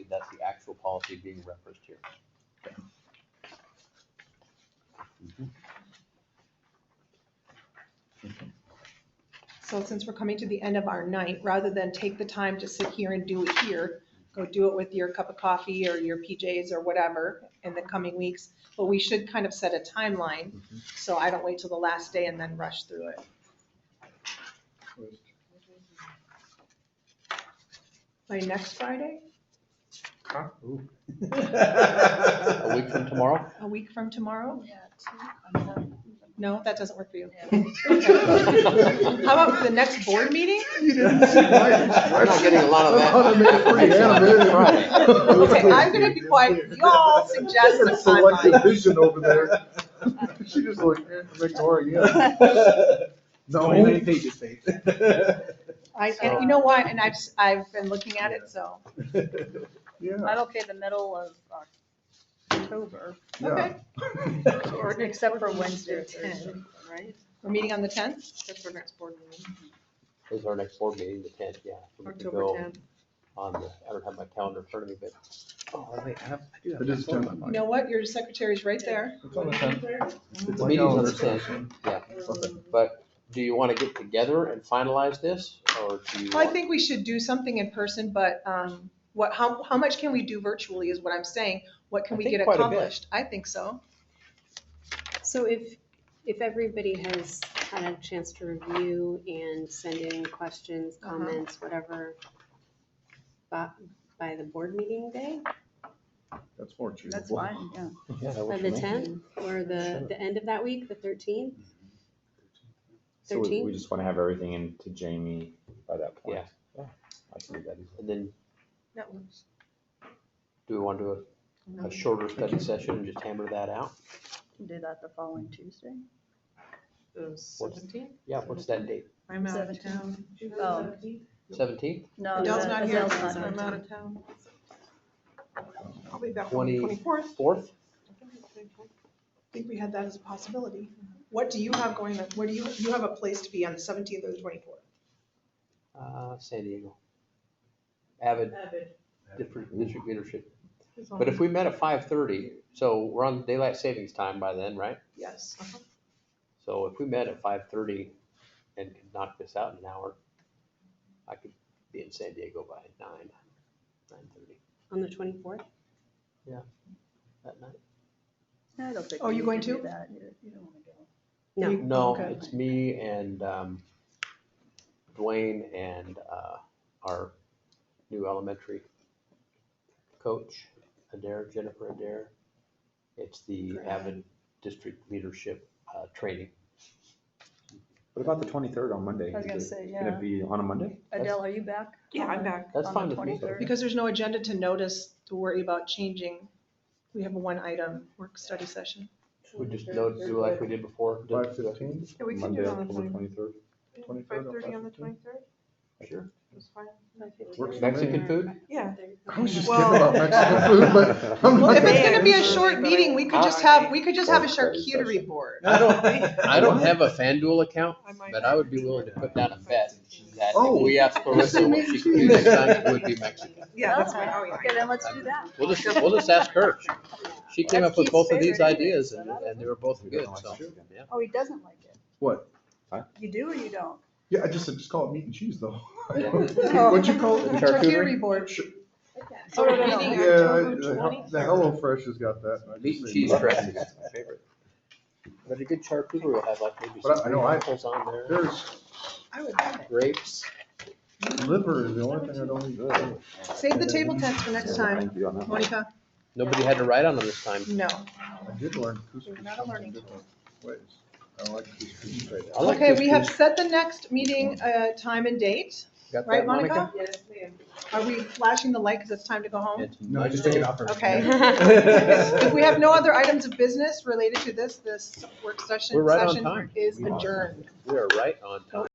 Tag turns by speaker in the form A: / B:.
A: policy being referenced here.
B: So since we're coming to the end of our night, rather than take the time to sit here and do it here, go do it with your cup of coffee or your PJs or whatever in the coming weeks, but we should kind of set a timeline, so I don't wait till the last day and then rush through it. By next Friday,
A: A week from tomorrow?
B: a week from tomorrow?
C: Yeah, two, I'm done.
B: No, that doesn't work for you.
C: Yeah.
B: How about the next board meeting?
D: You didn't see my
A: We're not getting a lot of that.
D: I thought I made it pretty animated.
B: Okay, I'm gonna be quiet. Y'all suggest a timeline.
D: Selective vision over there. She just like, eh, I'm ignoring you. No.
E: Twenty-nine pages, Dave.
B: I, and you know what, and I've, s- I've been looking at it, so,
D: Yeah,
C: I'm okay the middle of October,
D: yeah.
B: okay.
C: or except for Wednesday or Thursday, right?
B: We're meeting on the tenth?
C: That's our next board meeting,
A: This is our next board meeting, the tenth, yeah. so we could
C: October
A: go
C: tenth.
A: On the, I don't have my calendar in front of me, but, oh, wait, I have, I do have.
D: It
A: my
D: is
A: phone.
D: done.
B: You know what, your secretary's right there.
D: It's on the tenth.
A: The meeting's on the tenth, yeah. But do you want to get together and finalize this, or do you?
B: Well, I
A: want-
B: think we should do something in person, but, um, what, how, how much can we do virtually is what I'm saying. What can
A: I
B: we
A: think
B: get
A: quite a bit.
B: accomplished? I think so.
F: So if, if everybody has had a chance to review and send in questions,
B: Uh-huh.
F: comments, whatever, by, by the board meeting day,
D: That's more
C: That's
D: achievable.
C: fine, yeah.
A: Yeah, that
F: by
A: works
F: the
A: for me.
F: tenth, or the,
A: Sure.
F: the end of that week, the thirteenth?
G: So we, we
F: Thirteenth?
G: just want to have everything in to Jamie by that point.
A: Yeah. Yeah.
G: I can do that.
A: And then,
B: That works.
A: do we want to do a- a shorter study session and just hammer that out?
C: Can do that the following Tuesday.
A: What's- Yeah, what's that date?
B: I'm out of town.
C: Seventeenth. Oh,
A: Seventeenth,
C: no.
B: Adele's
C: the-
B: not here,
C: Adele's not
B: I'm
C: here.
B: out of town. I'll be back on
A: Twenty-
B: the twenty-fourth.
A: fourth?
B: I think we had that as a possibility. What do you have going on? What do you, you have a place to be on the seventeenth or the twenty-fourth?
A: Uh, San Diego. Avid, different district leadership. But
C: Um,
A: if we met at five thirty, so we're on daylight savings time by then, right?
B: Yes.
A: So if we met at five thirty and could knock this out in an hour, I could be in San Diego by nine, nine thirty
F: On the twenty-fourth?
A: that night.
C: I don't think
B: Oh,
C: we
B: you
C: need
B: going
C: do
B: to?
C: that. You- you don't wanna go.
F: No.
B: You-
A: No,
B: okay.
A: it's me and um, Dwayne and uh, our new elementary coach, Adair, Jennifer Adair. It's the Avid District Leadership uh, Training.
G: What about the twenty-third on Monday?
C: I was gonna
G: Is it
C: say,
G: Gonna
C: yeah.
G: be on a Monday?
C: Adele, are you back?
B: Yeah, I'm
C: on-
B: back.
A: That's
C: on the
A: fine with me.
C: 23rd?
B: Because there's no agenda to notice to worry about changing. We have a one item work study session.
A: We just know, do like we did before. do-
D: Five fifteen,
B: Yeah, we can do
G: Monday,
B: it on
G: October
B: the
G: twenty-third?
D: twenty-third. or
B: thirty on the
D: 5:15?
B: twenty-third,
A: Sure.
B: that's fine.
D: Works for me.
A: Mexican food?
B: Yeah.
D: I was just
B: Well-
D: kidding about Mexican food, but I'm
B: Well,
D: not.
B: if it's gonna be a
C: Thursday,
B: short
C: but I-
B: meeting, we could just have, we could just have a charcuterie board.
A: I don't, I don't have a FanDuel account, but I would be willing to put down a bet that if we asked Clarissa what she could do this time, it would be Mexican.
B: Yeah, that's
C: Okay.
B: fine, oh, yeah.
C: Okay, then let's do that.
A: We'll just, we'll just ask her. She came
C: That's
A: up with
C: Keith's
A: both of these
C: favorite anyway,
A: ideas
C: so
A: and,
C: that
A: and they were both good, so. yeah.
C: Oh, he doesn't like it.
D: What?
C: You do or you don't?
D: Yeah, I just said, just call it meat and cheese though.
A: Yeah.
B: Oh.
D: Oh. What'd you call it?
B: Charcuterie board. Oh, So we're
C: Yeah,
B: meeting
D: Yeah,
B: October
D: the
B: 23rd.
D: the Hello Fresh has got that. and I
A: Meat
D: just
A: and
D: say
A: cheese
D: no.
A: dressing is my favorite. But a good charcuterie will have like maybe
D: But I-
A: some
D: I know I-
A: apples on there,
D: There's
B: I would love
A: grapes.
D: liver is the only thing I don't eat.
B: it. Save the table tents for next time,
G: I'd be on that one.
B: Monica.
A: Nobody had to write on them this time.
B: No.
D: I did learn couscous.
C: Not a learning
D: something different ways. I like couscous right
A: I like
B: Okay, we have
A: couscous.
B: set the next meeting, uh, time and date,
A: Got
B: right,
A: that,
B: Monica? Yes, ma'am. Are we flashing the light because it's time to go home?
A: It's
E: No, just
A: Monday.
E: take it out first.
B: Okay. If we have no other items of business related to this, this work session,
A: We're right on
B: session
A: time.
B: is
G: We are.
B: adjourned.
A: We are right on time.